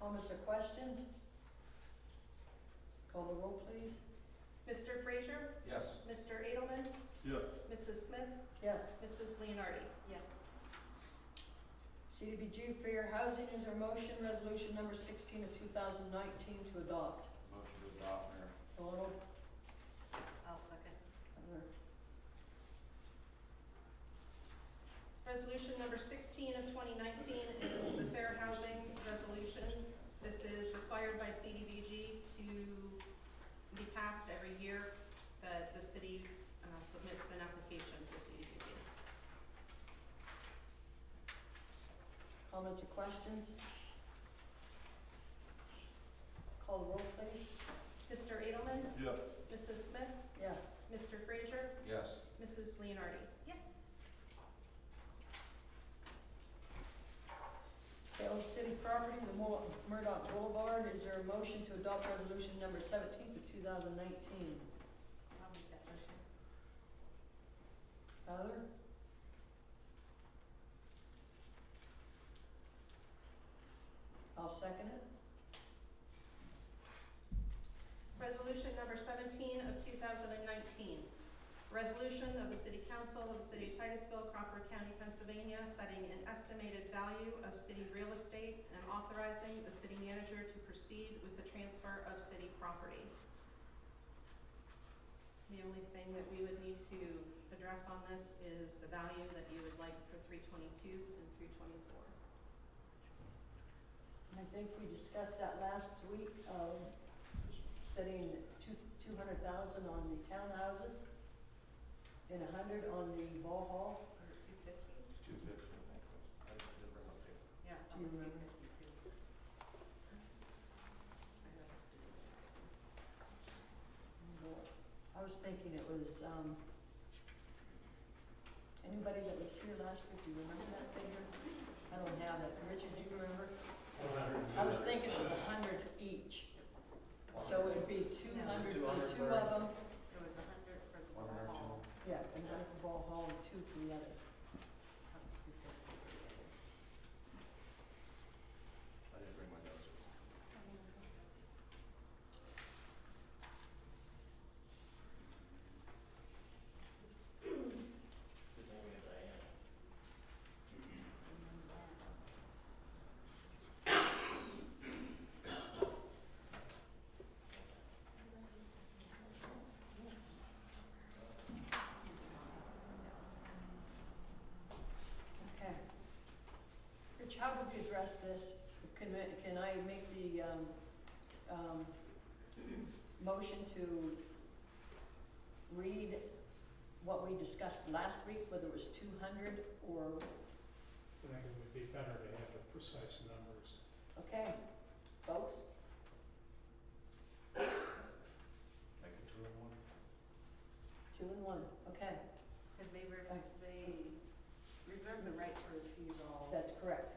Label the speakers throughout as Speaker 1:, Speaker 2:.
Speaker 1: Comments or questions? Call the roll, please.
Speaker 2: Mr. Frazier?
Speaker 3: Yes.
Speaker 2: Mr. Edelman?
Speaker 4: Yes.
Speaker 2: Mrs. Smith?
Speaker 1: Yes.
Speaker 2: Mrs. Leonardi? Yes.
Speaker 1: CDBG Fair Housing is our motion, resolution number sixteen of two thousand nineteen to adopt.
Speaker 3: Motion to adopt, Mayor.
Speaker 1: Donald,
Speaker 2: I'll second.
Speaker 1: Heather,
Speaker 2: Resolution number sixteen of twenty nineteen is the fair housing resolution. This is required by CDBG to be passed every year that the city uh, submits an application for CDBG.
Speaker 1: comments or questions? Call the roll, please.
Speaker 2: Mr. Edelman?
Speaker 4: Yes.
Speaker 2: Mrs. Smith?
Speaker 1: Yes.
Speaker 2: Mr. Frazier?
Speaker 3: Yes.
Speaker 2: Mrs. Leonardi? Yes.
Speaker 1: Sale of city property, the Mul- Murdoch Boulevard, is there a motion to adopt resolution number seventeen of two thousand nineteen?
Speaker 2: I'll make that motion.
Speaker 1: Heather? I'll second it.
Speaker 2: Resolution number seventeen of two thousand and nineteen. Resolution of the City Council of the City of Titusville, Crawford County, Pennsylvania, setting an estimated value of city real estate and authorizing the city manager to proceed with the transfer of city property. The only thing that we would need to address on this is the value that you would like for three twenty-two and three twenty-four.
Speaker 1: I think we discussed that last week, um, setting two, two hundred thousand on the townhouses and a hundred on the ball hall.
Speaker 2: Or two fifty?
Speaker 3: Two fifty, I think it was. I just didn't bring up the.
Speaker 2: Yeah.
Speaker 1: Do you remember? I was thinking it was, um, anybody that was here last week, do you remember that figure? I don't have it. Richard, do you remember? I was thinking it was a hundred each, so it'd be two hundred for the two of them,
Speaker 2: It was a hundred for the
Speaker 3: One hundred
Speaker 2: hall.
Speaker 3: two.
Speaker 1: yes, and one for ball hall and two for the other.
Speaker 2: That was two fifty for the other.
Speaker 3: I didn't bring my notes. Good thing we had Diane.
Speaker 1: Okay. Rich, how would we address this? Can I, can I make the, um, um, motion to read what we discussed last week, whether it was two hundred or,
Speaker 5: I think it would be better to have the precise numbers.
Speaker 1: okay, folks?
Speaker 3: Make it two and one.
Speaker 1: Two and one, okay,
Speaker 2: Cause they were,
Speaker 1: Right.
Speaker 2: they reserved the right to refuse all.
Speaker 1: that's correct.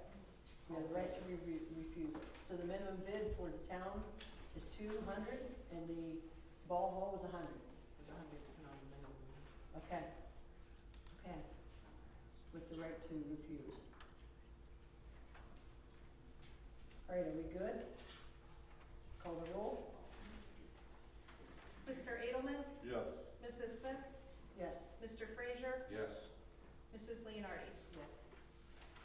Speaker 1: You have the right to re- re- refuse it. So the minimum bid for the town is two hundred and the ball hall was a hundred.
Speaker 2: It was a hundred and on the minimum.
Speaker 1: Okay, okay, with the right to refuse. All right, are we good? Call the roll?
Speaker 2: Mr. Edelman,
Speaker 4: Yes.
Speaker 2: Mrs. Smith,
Speaker 1: Yes.
Speaker 2: Mr. Frazier,
Speaker 3: Yes.
Speaker 2: Mrs. Leonardi. Yes.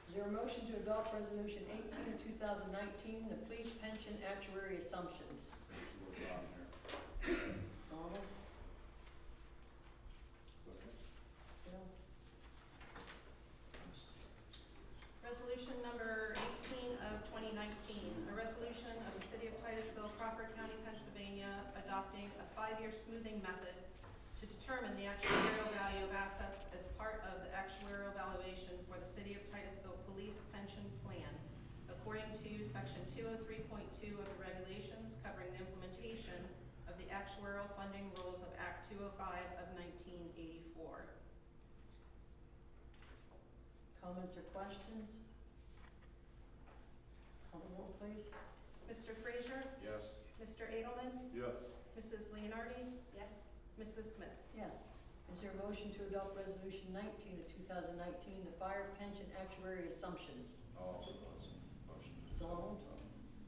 Speaker 1: Is there a motion to adopt resolution eighteen of two thousand nineteen, the police pension actuary assumptions?
Speaker 3: Motion to adopt, Mayor.
Speaker 1: Donald?
Speaker 3: Second.
Speaker 1: Bill?
Speaker 2: Resolution number eighteen of twenty nineteen, a resolution of the City of Titusville, Crawford County, Pennsylvania, adopting a five-year smoothing method to determine the actuarial value of assets as part of the actuarial valuation for the City of Titusville Police Pension Plan, according to section two oh three point two of the regulations covering the implementation of the actuarial funding rules of Act two oh five of nineteen eighty-four.
Speaker 1: Comments or questions? Call the roll, please.
Speaker 2: Mr. Frazier,
Speaker 3: Yes.
Speaker 2: Mr. Edelman,
Speaker 4: Yes.
Speaker 2: Mrs. Leonardi,
Speaker 1: Yes.
Speaker 2: Mrs. Smith.
Speaker 1: Yes. Is there a motion to adopt resolution nineteen of two thousand nineteen, the fire pension actuary assumptions?
Speaker 3: Also, motion to.
Speaker 1: Donald?